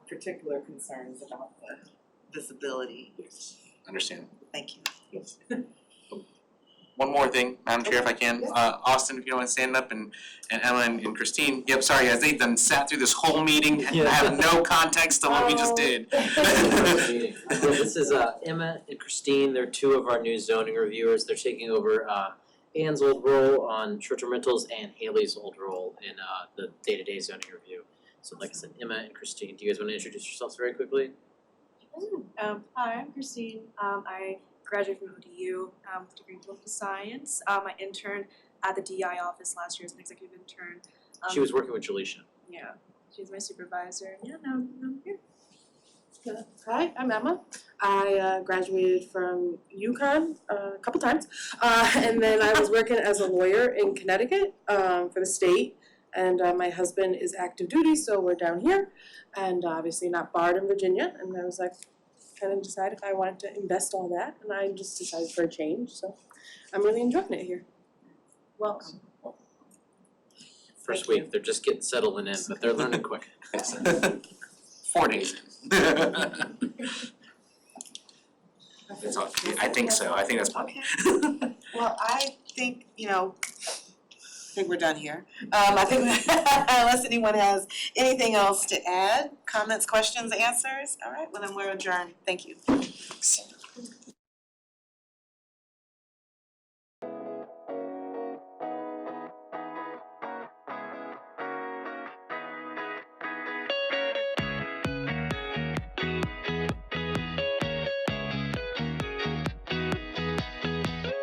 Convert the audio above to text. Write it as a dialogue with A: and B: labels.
A: particular concerns about the visibility.
B: Yes. Understand.
A: Thank you.
B: Yes. One more thing, Madam Chair, if I can,
A: Yeah.
B: uh, Austin, if you don't mind standing up, and, and Emma and and Christine, yep, sorry, guys, they've done sat through this whole meeting, and
C: Yeah.
B: have no context to what we just did.
C: Well, this is uh Emma and Christine, they're two of our new zoning reviewers, they're taking over uh Ann's old role on short-term rentals and Haley's old role in uh the day-to-day zoning review. So like I said, Emma and Christine, do you guys wanna introduce yourselves very quickly?
D: Um, hi, I'm Christine. Um, I graduated from ODU um, with a degree in political science. Um, I interned at the DI office last year as an executive intern. Um,
C: She was working with Jaleisha.
D: yeah, she was my supervisor. Yeah,
E: Hi, I'm Emma. I uh, graduated from UConn uh, a couple times, uh, and then I was working as a lawyer in Connecticut um, for the state. And uh, my husband is active duty, so we're down here, and uh, obviously not barred in Virginia. And I was like, kind of decide if I wanted to invest all that, and I just decided for a change. So I'm really enjoying it here.
D: welcome.
C: First
A: Thank you.
C: week, they're just getting settled in, but they're learning quick.
B: Four days. That's all, I think so, I think that's plenty.
A: Well, I think, you know, I think we're done here. Um, I think, unless anyone has anything else to add, comments, questions, answers, all right, well then we're adjourned, thank you.